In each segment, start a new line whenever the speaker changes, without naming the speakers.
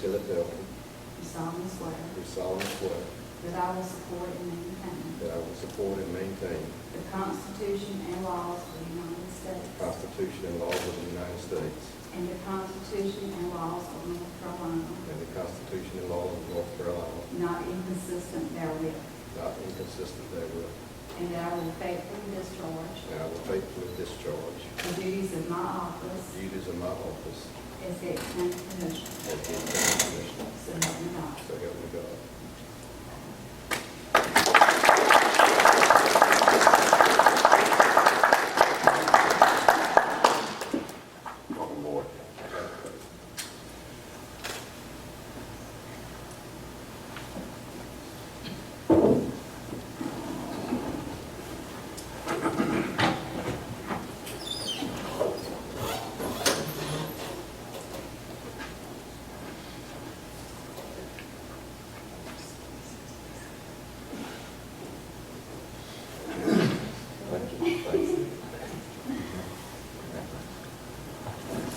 to the building,
do solemnly swear
do solemnly swear
that I will support and maintain
that I will support and maintain
the Constitution and laws of the United
the
States
Constitution and laws of the United States
and the Constitution and laws of North Carolina,
and the Constitution and laws of North Carolina,
not inconsistent therewith,
not inconsistent therewith,
and that I will faithfully discharge
and I will faithfully discharge
the duties of my office
the duties of my office
as the county commissioner.
as the county commissioner.
So help me God.
So help me God.
Welcome aboard.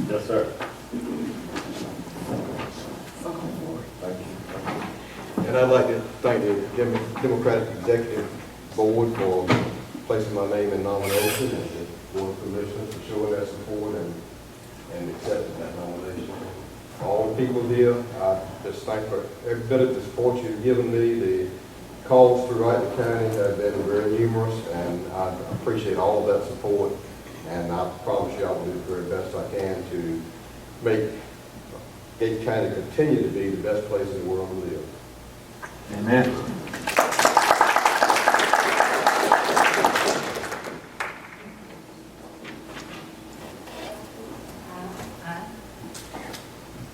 Yes, sir.
Thank you. Thank you. And I'd like to thank the Dem- Democratic Executive Board for placing my name in nomination and the Board of Commissioners for showing their support and, and accepting that nomination. All the people here, I just thank for every bit of the support you've given me. The calls throughout the county have been very numerous and I appreciate all of that support. And I promise you I will do the very best I can to make Dade County continue to be the best place in the world to live.
Amen.
I,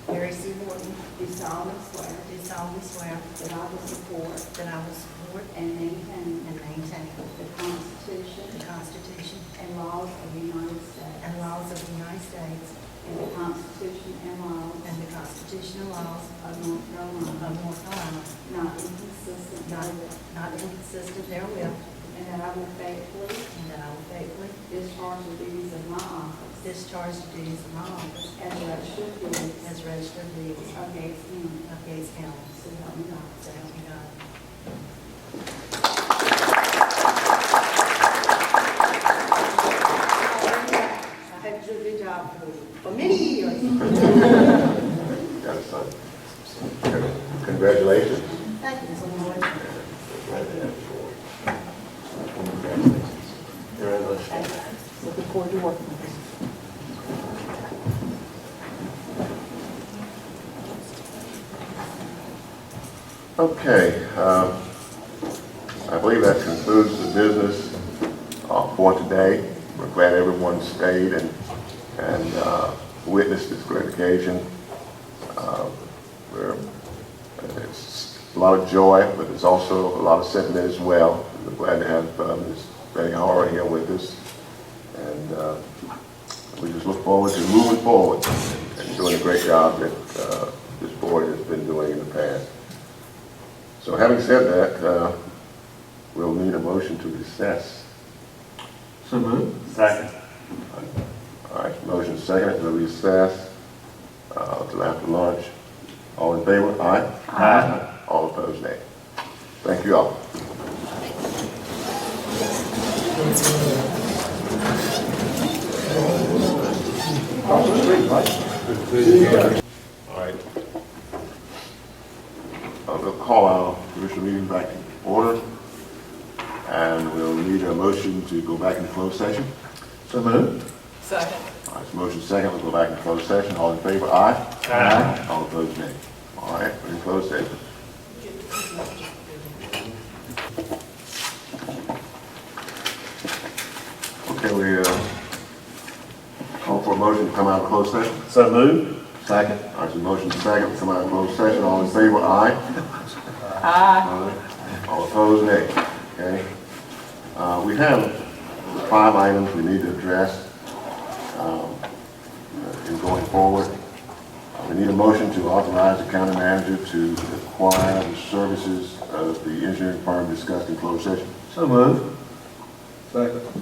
Mary C. Morton,
Do solemnly swear
do solemnly swear
that I will support
that I will support
and maintain
and maintain
the Constitution
the Constitution
and laws of the United States
and laws of the United States
and the Constitution and laws
and the constitutional laws
of North Carolina,
of North Carolina,
not inconsistent
not,
therewith,
not inconsistent therewith,
and that I will faithfully
and that I will faithfully
discharge the duties of my office
discharge the duties of my office
as registered duties
as registered deeds
of Gates County.
of Gates County.
So help me God.
So help me God. I had to do a good job for- for many years.
Got a son. Congratulations.
Thank you so much.
Congratulations.
Looking forward to working with you.
Okay, um, I believe that concludes the business uh, for today. We're glad everyone stayed and, and uh, witnessed this great occasion. Uh, We're, it's a lot of joy, but it's also a lot of sentiment as well. We're glad to have uh, Ms. Betty Hara here with us. And uh, we just look forward to moving forward and doing a great job that uh, this board has been doing in the past. So having said that, uh, we'll need a motion to recess.
So moved. Second.
All right, motion second to recess uh, till after lunch. All in favor? Aye.
Aye.
All opposed, nay. Thank you all. All right. I'll call our commission meeting back in order, and we'll need a motion to go back into closed session.
So moved.
All right, so motion second, we'll go back in closed session, all in favor, aye?
Aye.
All opposed, nay. All right, we're in closed session. Okay, we, uh, call for a motion to come out of closed session.
So moved. Second.
All right, so motion second, to come out of closed session, all in favor, aye? Aye. All opposed, nay. Okay? Uh, we have five items we need to address, um, in going forward. Uh, We need a motion to authorize the county manager to acquire the services of the engineering firm discussed in closed session.
So moved.
Second.